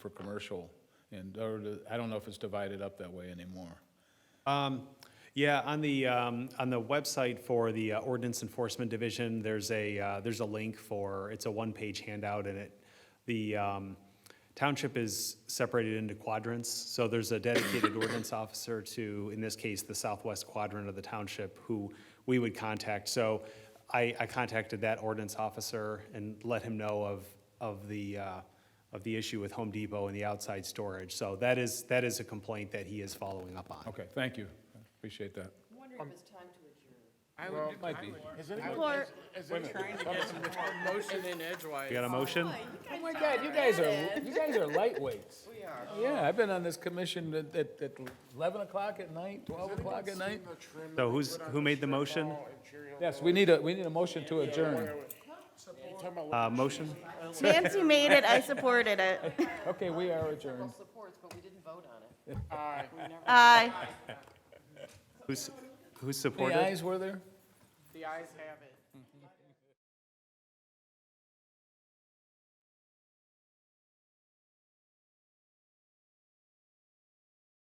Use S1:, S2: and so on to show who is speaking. S1: for commercial, and, or, the- I don't know if it's divided up that way anymore.
S2: Um, Yeah, on the, um, on the website for the uh, ordinance enforcement division, there's a, uh, there's a link for, it's a one-page handout and it, the um, township is separated into quadrants. So there's a dedicated ordinance officer to, in this case, the southwest quadrant of the township who we would contact. So I, I contacted that ordinance officer and let him know of, of the, uh, of the issue with Home Depot and the outside storage. So that is, that is a complaint that he is following up on.
S1: Okay, thank you, I appreciate that.
S3: I'm wondering if it's time to adjourn.
S4: I
S1: Well,
S4: would,
S1: it might be.
S5: Is anybody,
S6: Or-
S5: is anybody
S4: trying to get some more motion in edgewise.
S2: We got a motion?
S1: Oh my God, you guys are, you guys are lightweights.
S4: We are.
S1: Yeah, I've been on this commission at, at at eleven o'clock at night, twelve o'clock at night.
S5: seen the trim that
S2: So
S5: we
S2: who's-
S5: put on
S2: who made the
S5: strip
S2: motion?
S5: mall and Cheerio
S1: Yes,
S5: Bowl?
S1: we need a, we need a motion to adjourn.
S5: You talking about
S2: Uh, motion?
S6: Nancy made it, I supported it.
S1: Okay, we are adjourned.
S3: Well, supports, but we didn't vote on it.
S6: Aye.
S2: Who's, who
S1: Any
S2: supported?
S1: ayes were there?
S4: The eyes have it.